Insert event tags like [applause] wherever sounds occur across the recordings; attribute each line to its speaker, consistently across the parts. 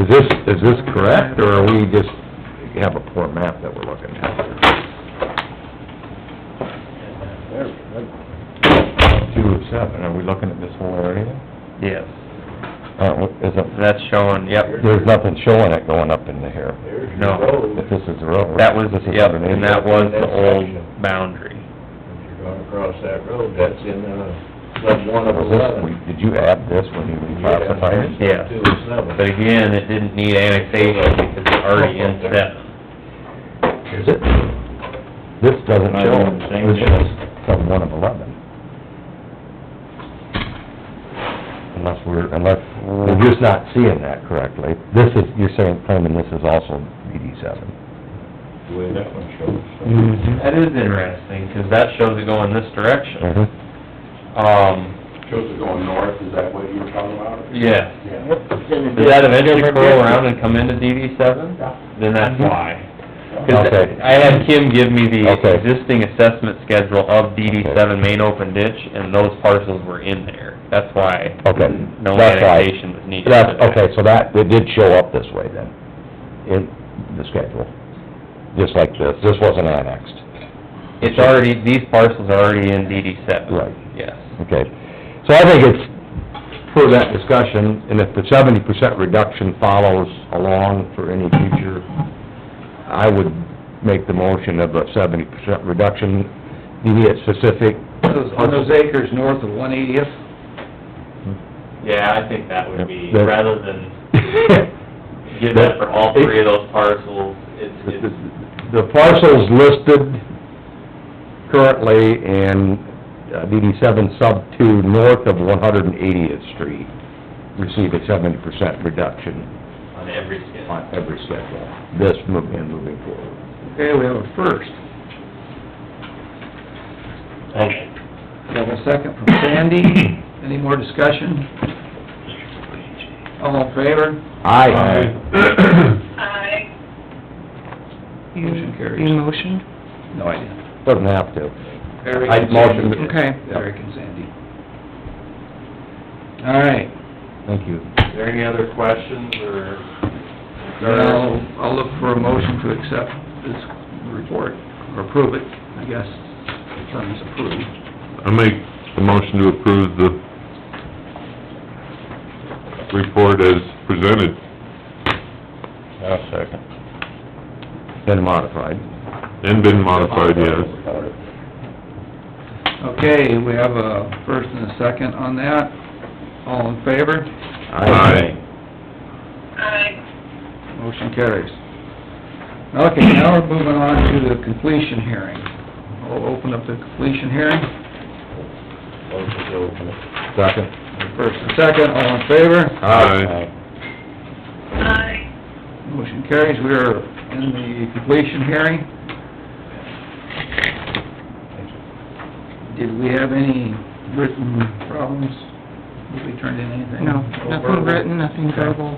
Speaker 1: Is this, is this correct, or are we just, have a poor map that we're looking at? Two of seven, are we looking at this whole area?
Speaker 2: Yes,
Speaker 1: Uh, what, is it,
Speaker 2: that's showing, yep,
Speaker 1: there's nothing showing it going up into here,
Speaker 3: There's your
Speaker 2: No.
Speaker 3: road,
Speaker 1: if this is the road.
Speaker 2: that was,
Speaker 1: this is
Speaker 2: yep,
Speaker 1: underneath.
Speaker 2: and that was the old boundary.
Speaker 3: if you're going across that road, that's in, uh, sub one of
Speaker 1: Was this-
Speaker 3: eleven.
Speaker 1: we- Did you add this when you reclassified it?
Speaker 2: Yeah.
Speaker 3: Two of seven.
Speaker 2: But again, it didn't need annexation because it's already in seven.
Speaker 1: Is it? This doesn't
Speaker 2: Might
Speaker 1: show,
Speaker 2: be the same
Speaker 1: this
Speaker 2: deal.
Speaker 1: shows some one of eleven. Unless we're, unless, we're just not seeing that correctly. This is, you're saying, claiming this is also DD seven.
Speaker 3: The way that one shows.
Speaker 1: Mm-hmm.
Speaker 2: That is interesting, because that shows it going this direction.
Speaker 1: Mm-hmm.
Speaker 2: Um,
Speaker 4: Shows it going north, is that what you were talking about?
Speaker 2: yeah.
Speaker 4: Yeah.
Speaker 2: Does that eventually curl around and come into DD seven? Then that's why. 'Cause
Speaker 1: Mm-hmm. Okay.
Speaker 2: I had Kim give me the
Speaker 1: Okay.
Speaker 2: existing assessment schedule of DD seven main open ditch, and those parcels were in there. That's why
Speaker 1: Okay,
Speaker 2: no
Speaker 1: that's why.
Speaker 2: annexation was needed.
Speaker 1: That's, okay, so that, it did show up this way then, in the schedule, just like this. This wasn't annexed.
Speaker 2: It's already, these parcels are already in DD seven.
Speaker 1: Right.
Speaker 2: Yes.
Speaker 1: Okay, so I think it's for that discussion, and if the seventy percent reduction follows along for any future, I would make the motion of a seventy percent reduction, you need it specific.
Speaker 5: On those acres north of one eightieth,
Speaker 2: Yeah, I think that would be,
Speaker 1: That-
Speaker 2: rather than give that for all three of those parcels, it's, it's,
Speaker 1: [laughs] The parcels listed currently in uh, DD seven sub two, north of one hundred and eightieth street, receive a seventy percent reduction.
Speaker 2: on every skin.
Speaker 1: on every schedule, this move and moving forward.
Speaker 5: okay, we have a first. We have a second from Sandy. Any more discussion? All in favor?
Speaker 1: Aye.
Speaker 6: Aye.
Speaker 7: You,
Speaker 5: Motion carries.
Speaker 7: you motioned?
Speaker 5: No idea.
Speaker 1: Doesn't have to.
Speaker 5: Eric
Speaker 1: I
Speaker 5: and
Speaker 1: motioned
Speaker 5: Sandy.
Speaker 1: it.
Speaker 7: Okay.
Speaker 5: Eric and Sandy. All right,
Speaker 1: Thank you.
Speaker 2: Is there any other questions or?
Speaker 5: now, I'll look for a motion to accept this report, or approve it, I guess, the term is approved.
Speaker 4: I make a motion to approve the report as presented.
Speaker 1: second. Been modified.
Speaker 4: And been modified, yes.
Speaker 5: Okay, we have a first and a second on that. All in favor?
Speaker 4: Aye.
Speaker 6: Aye.
Speaker 5: Motion carries. Okay, now we're moving on to the completion hearing. We'll open up the completion hearing,
Speaker 3: Motion to open it.
Speaker 1: Second.
Speaker 5: first and second, all in favor?
Speaker 4: Aye.
Speaker 6: Aye.
Speaker 5: Motion carries, we are in the completion hearing. Did we have any written problems? Did we turn in anything?
Speaker 7: No,
Speaker 5: Verbal?
Speaker 7: nothing written, nothing verbal.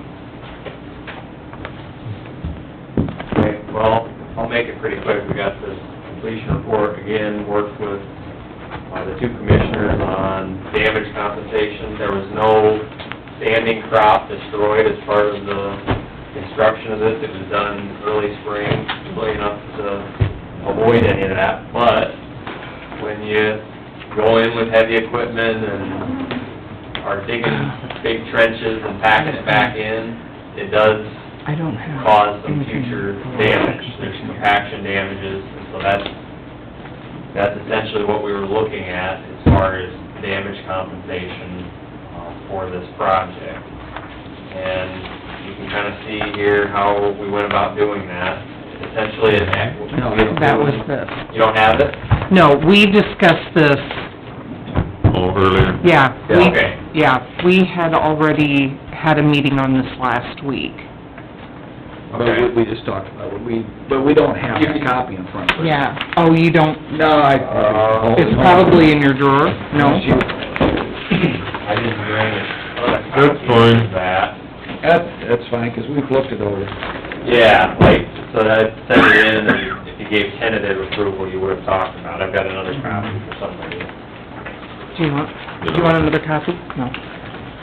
Speaker 2: Okay, well, I'll make it pretty quick, we got this completion report, again, worked with, uh, the two commissioners on damage compensation, there was no standing crop destroyed as part of the construction of this, it was done early spring, early enough to avoid any of that, but when you go in with heavy equipment and are digging big trenches and packing it back in, it does
Speaker 7: I don't have...
Speaker 2: cause some
Speaker 7: anything
Speaker 2: future
Speaker 7: for
Speaker 2: damage,
Speaker 7: completion
Speaker 2: there's
Speaker 7: hearing.
Speaker 2: compaction damages, and so that's, that's essentially what we were looking at as far as damage compensation uh, for this project. And you can kind of see here how we went about doing that, essentially, it act-
Speaker 7: No, that was the,
Speaker 2: You don't have it?
Speaker 7: no, we discussed this,
Speaker 4: Oh, earlier.
Speaker 7: yeah. we-
Speaker 2: Yeah, okay.
Speaker 7: Yeah, we had already had a meeting on this last week.
Speaker 5: But we- we just talked about, it. we, but we don't have a copy in front of us.
Speaker 7: Yeah. Oh, you don't,
Speaker 5: No, I...
Speaker 7: it's probably in your drawer? No?
Speaker 2: I didn't bring it.
Speaker 4: That's fine.
Speaker 2: That.
Speaker 5: That, that's fine, 'cause we've looked it over.
Speaker 2: Yeah, like, so that sent it in, and if you gave tentative approval, you would have talked about it. I've got another copy for somebody.
Speaker 7: Do you want, do you want another copy? No.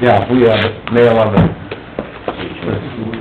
Speaker 1: Yeah, we have it, mail on the